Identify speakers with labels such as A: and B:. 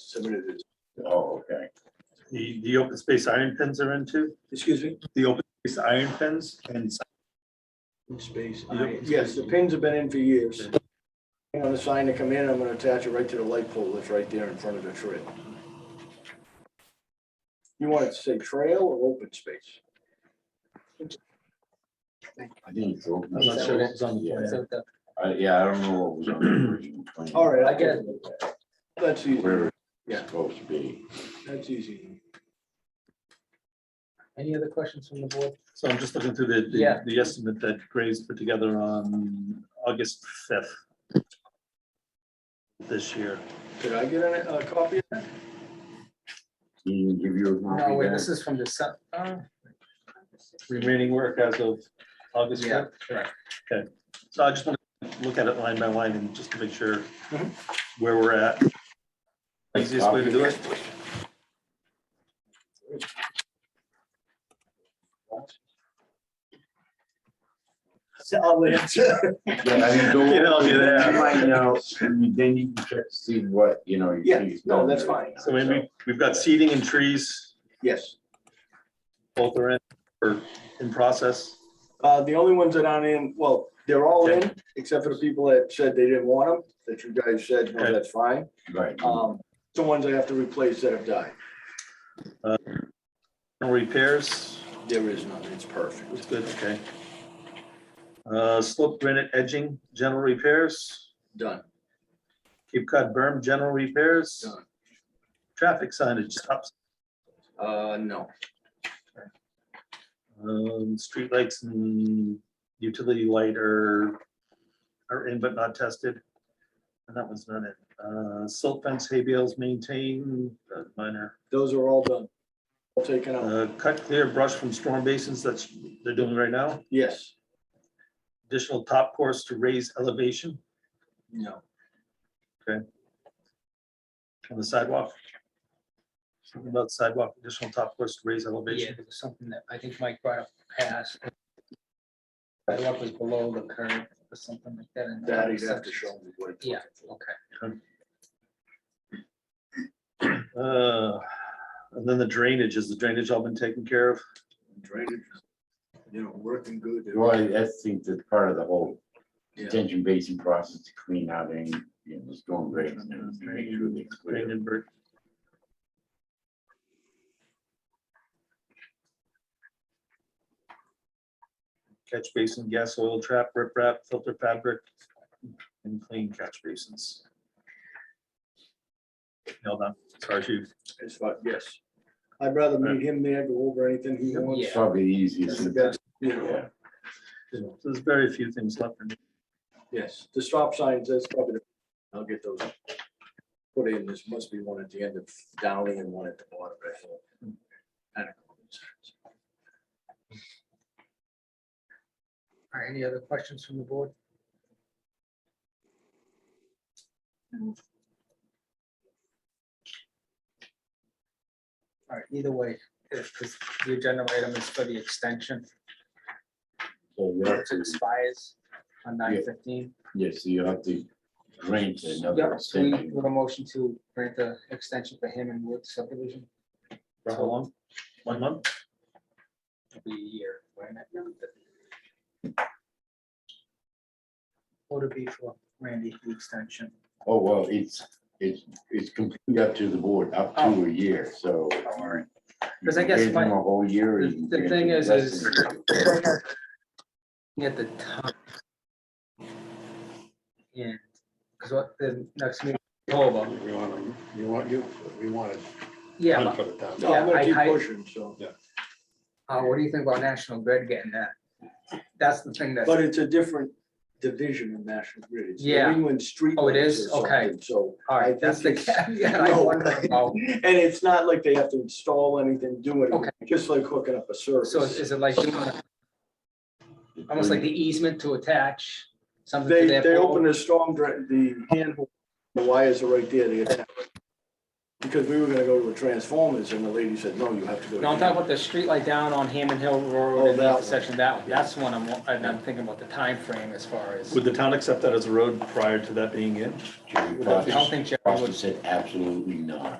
A: submitted it.
B: Oh, okay.
C: The, the open space iron pins are into,
A: Excuse me?
C: the open space iron pins and
A: Space.
C: I-
A: Uh, Yes, the pins have been in for years. And on the sign to come in, I'm gonna attach it right to the light pole that's right there in front of the trail. You want it to say trail or open space?
B: I think it's open.
C: I'm not sure what was on the plan.
B: Yeah, I- yeah, I don't know what was on the original plan.
A: All right, I get it. That's easy,
B: Where
A: Yeah.
B: it's supposed to be.
A: that's easy.
D: Any other questions from the board?
C: So I'm just looking through the- the,
D: Yeah.
C: the estimate that Graves put together on August fifth. This year.
A: Did I get a, a copy? of that?
B: He didn't give you a copy
D: No, wait,
B: back?
D: this is from the, se- uh,
C: remaining work as of August
D: yeah,
C: fifth.
D: correct.
C: So I just want to look at it line by line and just to make sure
A: Mhm.
D: Mm-hmm.
C: where we're at. Easiest way to do it.
A: Solid.
B: Yeah, I mean, don't-
C: You know, I'll do that.
B: You might know, and then you can check, to see what, you know. you-
A: Yeah,
B: you-
A: no, that's fine.
C: So maybe we've got seeding and trees,
A: Yes,
C: both are in, or in process.
A: uh, the only ones that aren't in, well, they're all in, except for the people that said they didn't want them, that you guys said, no,
C: Okay.
A: that's fine.
B: Right.
A: Um, the ones I have to replace that have died,
C: No repairs,
A: there is none, it's perfect.
C: it's good, okay. Uh, slope granite edging, general repairs,
A: Done,
C: Cape Cod berm, general repairs.
A: Done.
C: Traffic signage, stops,
A: uh, no,
C: um, streetlights and utility light are, are in but not tested. And that one's not it. Uh, silt fence, hay bales maintained, uh, minor.
A: those are all done. All taken out,
C: Uh, cut clear brush from storm basins, that's, they're doing right now.
A: yes,
C: Additional top course to raise elevation
A: no,
C: on the sidewalk. Something about sidewalk, additional top course to raise
D: Yeah,
C: elevation.
D: it was something that I think Mike brought up past. I love was below the curve or something like that. in the
A: that
D: other
A: he'd have to
D: sections.
A: show me what. it's
D: Yeah,
A: looking for.
D: okay.
C: Uh, and then the drainage, is the drainage all been taken care of?
A: Drainage, you know, working good.
B: Well, I I think that's part of the whole
A: Yeah.
B: detention basin process to clean out any, you know, storm drains and everything, make sure they
C: Drain
B: clear.
C: and bur- Catch basin, gas oil trap, riprap, filter fabric, and clean catch basins. Nailed on, sorry, chief.
A: It's fine, yes. I'd rather meet him there, go over anything he wants.
B: It's probably the easiest.
A: That's- yeah.
B: Yeah,
C: There's very few things left. in-
A: Yes, the stop signs, that's probably, the- I'll get those put in, this must be one at the end of Downey and one at the bottom. I think. Kind of.
D: All right, any other questions from the board? All right, either way, if, because the agenda item is for the extension,
B: So you have
D: it
B: to-
D: expires on nine fifteen.
B: Yes, so you have to grant another
D: Yep, we
B: extension.
D: with a motion to grant the extension for him and Wood subdivision,
C: For how long? One month?
D: it'll be a year, right? Would it be for Randy, the extension?
B: Oh, well, it's, it's, it's completely up to the board, up to a year, so.
D: All right.
B: you
D: Oh. Because I
B: can
D: guess
B: grant
D: my-
B: them A whole year. or
D: the-
B: you can
D: the
B: grant
D: thing
B: them
D: is-
B: less
D: is-
B: than a year.
D: At the time. Yeah, because what, the next meeting, is over,
E: We want, to- you want, you, we wanted.
D: yeah,
E: Hunt
D: but,
E: for the town.
A: No, I'm
D: Yeah, I-
A: gonna keep
D: I-
A: pushing, so,
D: uh, what do you think about National Grid getting that? That's the thing that's,
A: but it's a different division of National Grid. It's New
D: Yeah.
A: England Street.
D: Oh, it is?
A: Lights or
D: Okay.
A: something, So.
D: all
A: I
D: right, that's the
A: think it's-
D: caveat I
A: No.
D: wonder about.
A: And it's not like they have to install anything, do
D: Okay.
A: anything, just like hooking up a service.
D: So is is it like, doing a- almost like the easement to attach something to
A: They,
D: their.
A: they
D: pole?
A: opened the storm drain, the handle, the wires are right there, they attach. Because we were gonna go to a transformers and the lady said, no, you have to go. to
D: No, I'm talking about the street light down on Hammond Hill Road
A: Oh,
D: and
A: that
D: the
A: one.
D: intersection, that one, that's the one I'm, wa- and I'm thinking about the time frame as far as.
C: Would the town accept that as a road prior to that being in?
B: Should we
D: I don't
B: process-
D: think Jeff
B: Austin said absolutely not.